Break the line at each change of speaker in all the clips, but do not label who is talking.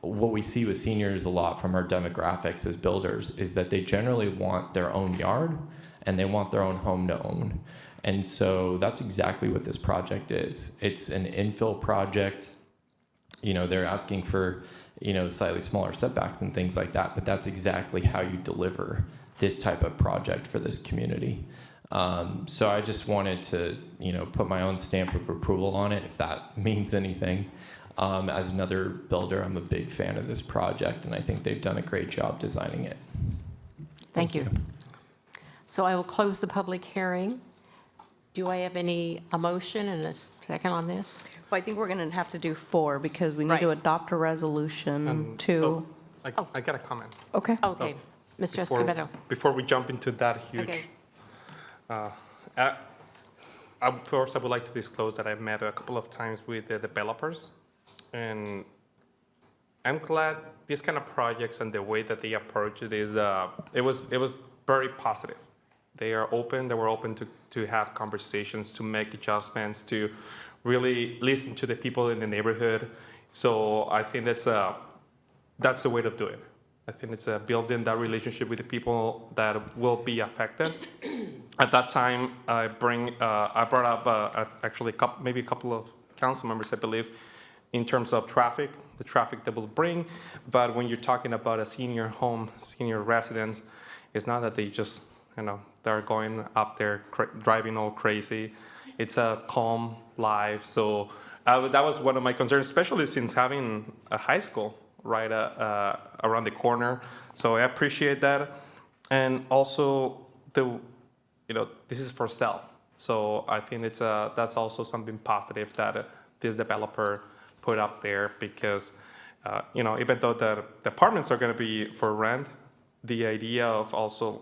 what we see with seniors a lot from our demographics as builders is that they generally want their own yard and they want their own home to own. And so that's exactly what this project is. It's an infill project. You know, they're asking for, you know, slightly smaller setbacks and things like that, but that's exactly how you deliver this type of project for this community. Um, so I just wanted to, you know, put my own stamp of approval on it, if that means anything. Um, as another builder, I'm a big fan of this project, and I think they've done a great job designing it.
Thank you. So I will close the public hearing. Do I have any, a motion and a second on this?
Well, I think we're going to have to do four because we need to
Right.
adopt a resolution
Um,
to,
oh, I I got a comment.
okay.
Oh. Okay, Mr.
before-
Escobedo.
Before we jump into that
Okay.
huge, uh, uh, I would- first, I would like to disclose that I've met a couple of times with the developers, and I'm glad these kind of projects and the way that they approach it is, uh, it was, it was very positive. They are open, they were open to, to have conversations, to make adjustments, to really listen to the people in the neighborhood. So I think that's a, that's the way to do it. I think it's uh, building that relationship with the people that will be affected. At that time, I bring, uh, I brought up uh, a- actually a coup maybe a couple of council members, I believe, in terms of traffic, the traffic that will bring. But when you're talking about a senior home, senior residence, it's not that they just, you know, they're going up there cra- driving all crazy. It's a calm life. So I wa- that was one of my concerns, especially since having a high school right uh, uh, around the corner. So I appreciate that. And also the, you know, this is for sale. So I think it's uh, that's also something positive that uh, this developer put up there because, uh, you know, even though the, the apartments are going to be for rent, the idea of also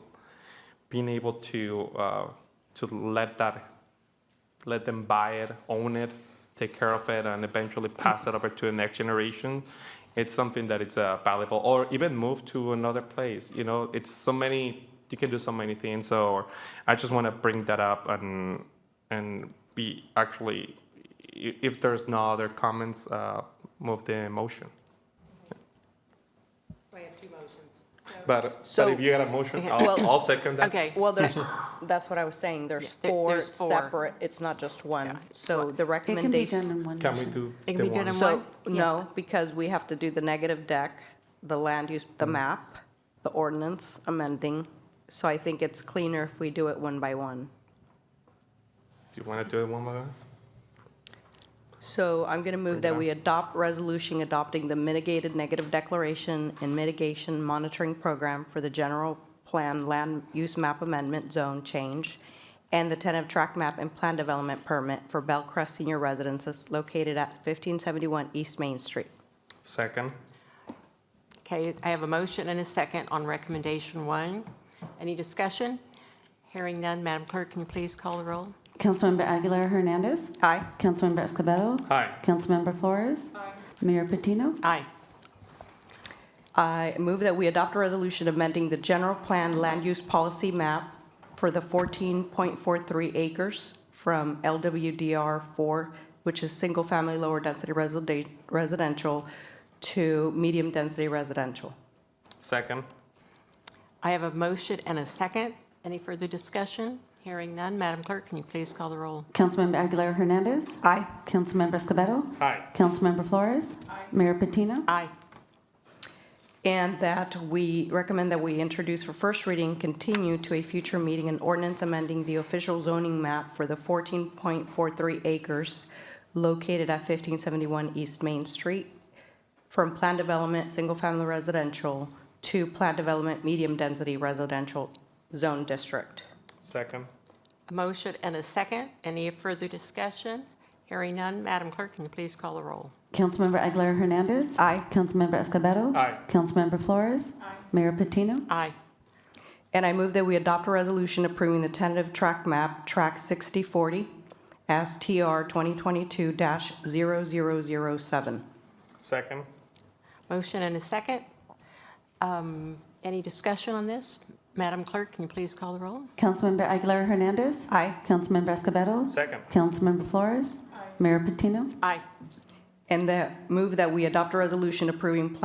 being able to uh, to let that let them buy it, own it, take care of it, and eventually pass it over to the next generation. It's something that it's uh, valuable, or even move to another place. You know, it's so many. You can do so many things. So I just want to bring that up and and be actually, i- if there's no other comments, uh, move the motion.
We have two motions.
But
So-
but if you got a motion, I'll,
Well-
I'll second that.
Okay,
Well, there's, that's what I was saying, there's
There-
four
there's four.
separate, it's not just one. So the
It can be
recommendation.
done in one
Can we
motion.
do
It can
the
be done
one?
in
So,
One?
no, because we have to do the negative deck, the land use, the map, the ordinance amending. So I think it's cleaner if we do it one by one.
Do you want to do it one by one?
So I'm going to move that we adopt resolution adopting the mitigated negative declaration and mitigation monitoring program for the general plan land use map amendment zone change and the tentative track map and plan development permit for Bellcrest Senior Residences located at 1571 East Main Street.
Second.
Okay, I have a motion and a second on recommendation one. Any discussion? Hearing none, Madam Clerk, can you please call the roll?
Councilmember Aguilar Hernandez.
Aye.
Councilmember Escobedo.
Aye.
Councilmember Flores. Mayor Patino.
Aye.
I move that we adopt a resolution amending the general plan land use policy map for the 14.43 acres from LWDR 4, which is single-family lower-density residen- residential, to medium-density residential.
Second.
I have a motion and a second. Any further discussion? Hearing none, Madam Clerk, can you please call the roll?
Councilmember Aguilar Hernandez.
Aye.
Councilmember Escobedo.
Aye.
Councilmember Flores. Mayor Patino.
Aye.
And that we recommend that we introduce for first reading, continue to a future meeting, an ordinance amending the official zoning map for the 14.43 acres located at 1571 East Main Street from planned development, single-family residential, to planned development, medium-density residential zone district.
Second.
A motion and a second. Any further discussion? Hearing none, Madam Clerk, can you please call the roll?
Councilmember Aguilar Hernandez.
Aye.
Councilmember Escobedo.
Aye.
Councilmember Flores. Mayor Patino.
Aye.
And I move that we adopt a resolution approving the tentative track map, Track 6040, STR 2022-0007.
Second.
Motion and a second. Um, Any discussion on this? Madam Clerk, can you please call the roll?
Councilmember Aguilar Hernandez.
Aye.
Councilmember Escobedo.
Second.
Councilmember Flores. Mayor Patino.
Aye.
And that, move that we adopt a resolution approving plan